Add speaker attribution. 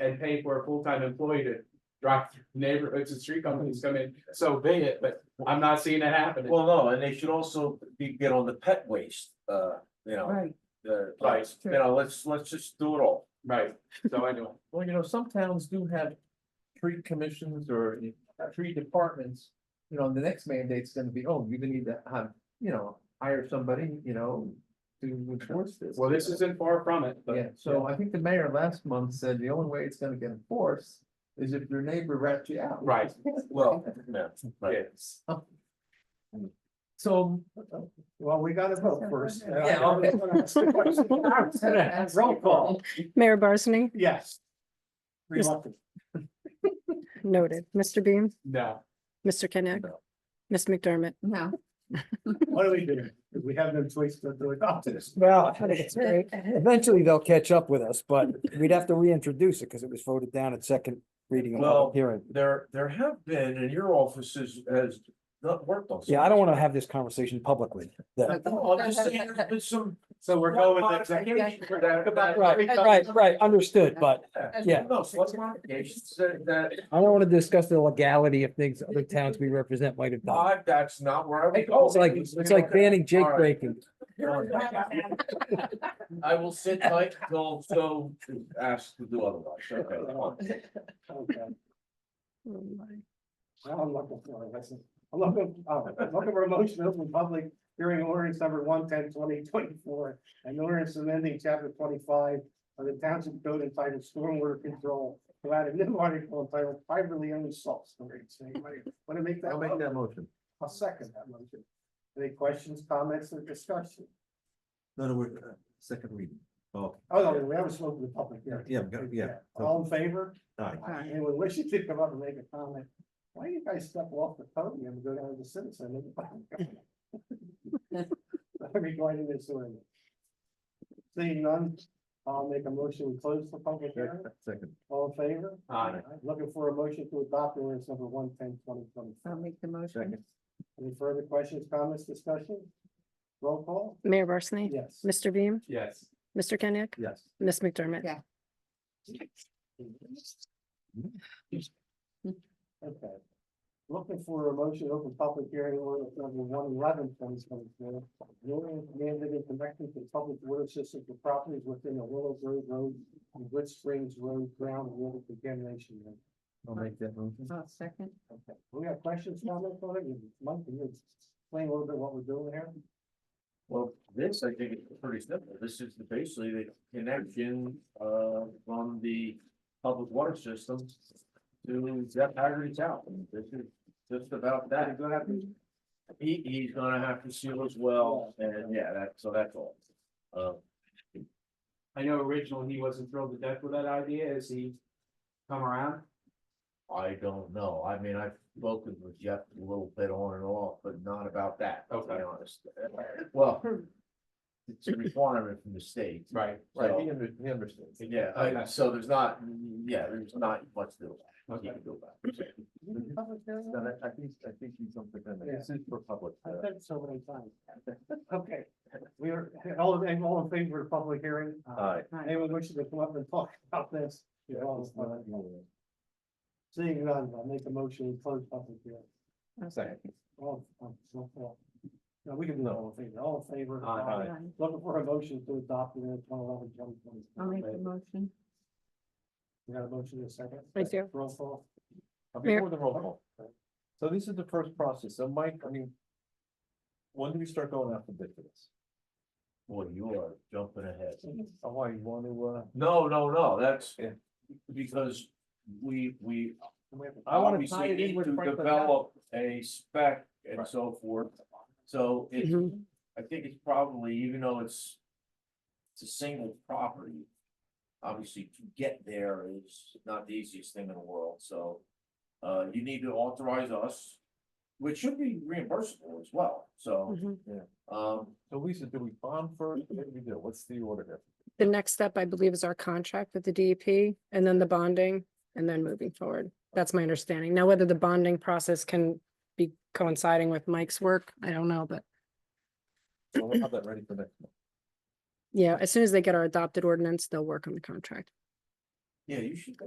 Speaker 1: and pay for a full-time employee to drive through neighborhoods and street companies come in, so be it, but I'm not seeing that happening.
Speaker 2: Well, no, and they should also be, get on the pet waste, uh, you know,
Speaker 3: Right,
Speaker 2: the,
Speaker 1: Right.
Speaker 2: you know, let's, let's just do it all.
Speaker 1: Right, so anyway,
Speaker 4: Well, you know, some towns do have tree commissions or tree departments. You know, the next mandate's gonna be, oh, you're gonna need to have, you know, hire somebody, you know, to enforce this.
Speaker 1: well, this isn't far from it,
Speaker 4: Yeah,
Speaker 1: but
Speaker 4: so I think the mayor last month said the only way it's gonna get enforced is if your neighbor rats you out.
Speaker 1: Right.
Speaker 2: Well, yeah, right.
Speaker 1: yes.
Speaker 4: So.
Speaker 5: Well, we gotta vote first.
Speaker 4: Yeah, okay.
Speaker 5: Roll call,
Speaker 6: Mayor Barsney,
Speaker 5: yes. Reluctant.
Speaker 6: noted. Mr. Beam,
Speaker 1: No,
Speaker 6: Mr. Kenick,
Speaker 2: No.
Speaker 6: Ms. McDermott.
Speaker 3: no.
Speaker 5: What do we do? We have no choice but to adopt this.
Speaker 7: Well, eventually they'll catch up with us, but we'd have to reintroduce it because it was voted down at second reading and
Speaker 2: Well-
Speaker 7: public hearing.
Speaker 2: There, there have been, and your office has, has not worked on. some
Speaker 7: Yeah, I don't
Speaker 2: of
Speaker 7: want to have this conversation publicly. that-
Speaker 2: this. No, I'm just saying, there's been some.
Speaker 1: so we're going with executive.
Speaker 2: modifications that- that-
Speaker 7: Right, right, right, understood, but yeah,
Speaker 2: No, some modifications that, that,
Speaker 7: I don't want to discuss the legality of things other towns we represent might have done.
Speaker 2: I- that's not where I would go.
Speaker 7: It's like, it's like banning Jake
Speaker 2: All right.
Speaker 7: breaking.
Speaker 2: I will sit tight till, so asked to do otherwise. Okay.
Speaker 5: Okay. Well, I'm looking for, it. I said, I'm looking, uh, I'm looking for a motion to open public hearing on ordinance number one ten twenty twenty-four. An ordinance amending chapter twenty-five of the township code entitled stormwater control. To add a new article entitled privately owned salt storage. So anybody Want to make that?
Speaker 4: I'll make
Speaker 5: motion?
Speaker 4: that motion.
Speaker 5: I'll second that motion. Any questions, comments, or discussion?
Speaker 8: No, no, we're, uh, second reading. Oh,
Speaker 5: Oh, no, we haven't spoken to the public yet.
Speaker 8: yeah, we got- yeah.
Speaker 5: All in favor?
Speaker 8: Aye.
Speaker 5: Anyone wishing to come up and make a comment? Why do you guys step off the podium and go down to the citizen? and- Regarding this ordinance. Seeing none, I'll make a motion to close the public hearing.
Speaker 8: Second.
Speaker 5: All in favor?
Speaker 1: Aye.
Speaker 5: Looking for a motion to adopt ordinance number one ten twenty twenty.
Speaker 3: I'll make the motion.
Speaker 8: Second.
Speaker 5: Any further questions, comments, discussion? Roll call?
Speaker 6: Mayor Barsney,
Speaker 5: Yes.
Speaker 6: Mr. Beam,
Speaker 1: Yes,
Speaker 6: Mr. Kenick,
Speaker 8: Yes.
Speaker 6: Ms. McDermott.
Speaker 3: Yeah.
Speaker 5: Mm-hmm. Okay. Looking for a motion to open public hearing order number one eleven twenty twenty four. An ordinance amended in connection to public water system for properties within the Willow Grove Road and Wood Springs Road ground water contamination. limit.
Speaker 4: I'll make that motion.
Speaker 3: I'll second.
Speaker 5: Okay, we have questions, comments, on it? Mike, can you explain a little bit what we're doing here?
Speaker 2: Well, this, I think it's pretty simple. This is the- basically the connection, uh, from the public water system to Jeff Haggerty's house. This is just about that.
Speaker 5: Go ahead.
Speaker 2: He, he's gonna have to seal as well, and yeah, that, so that's all. Uh,
Speaker 1: I know originally he wasn't thrilled to death with that idea, is he come around?
Speaker 2: I don't know. I mean, I've spoken with Jeff a little bit on and off, but not about that, to be
Speaker 1: Okay.
Speaker 2: honest. Well, it's a requirement from the state.
Speaker 1: Right,
Speaker 4: Right, he
Speaker 2: So,
Speaker 4: under- he understands.
Speaker 2: Yeah, I- so there's not, yeah, there's not much to,
Speaker 1: okay.
Speaker 2: you can do about it.
Speaker 5: Public hearing?
Speaker 4: No, that- I think, I think he's on the, this is for public. uh,
Speaker 5: I've said so many times. Okay, we are, all, in- all in favor of public hearing? Uh,
Speaker 4: Aye.
Speaker 5: Anyone wishing to come up and talk about this? You're all invited. Seeing none, I'll make a motion to close public hearing.
Speaker 3: I'll
Speaker 4: Second.
Speaker 5: All, um, so, well, no, we can do all in favor, all in favor.
Speaker 1: Aye.
Speaker 5: Aye.
Speaker 3: Aye.
Speaker 5: Looking for a motion to adopt the minutes one eleven twenty
Speaker 3: I'll make the
Speaker 5: twenty.
Speaker 3: motion.
Speaker 5: We got a motion in a second.
Speaker 6: I do.
Speaker 5: Roll call.
Speaker 4: Uh,
Speaker 6: Mayor-
Speaker 4: Before the roll call. So this is the first process. So Mike, I mean. When do we start going out for bid for this?
Speaker 2: Boy, you are jumping ahead.
Speaker 4: Oh, why, you want to, uh?
Speaker 2: No, no, no, that's
Speaker 4: Yeah.
Speaker 2: because we, we
Speaker 5: And we have a-
Speaker 4: I wanna tie
Speaker 2: obviously
Speaker 4: it in
Speaker 2: need
Speaker 4: with
Speaker 2: to
Speaker 4: Franklin
Speaker 2: develop a spec and
Speaker 4: Right.
Speaker 2: so forth. So it's
Speaker 6: Mhm.
Speaker 2: I think it's probably, even though it's. It's a single property. Obviously, to get there is not the easiest thing in the world, so. Uh, you need to authorize us, which should be reimbursable as well, so,
Speaker 6: Mhm.
Speaker 2: um,
Speaker 4: So Lisa, do we bond first? What do we do? What's the order here?
Speaker 6: The next step, I believe, is our contract with the DEP and then the bonding and then moving forward. That's my understanding. Now, whether the bonding process can be coinciding with Mike's work, I don't know, but
Speaker 4: So we'll have that ready for next month.
Speaker 6: yeah, as soon as they get our adopted ordinance, they'll work on the contract.
Speaker 2: Yeah, you should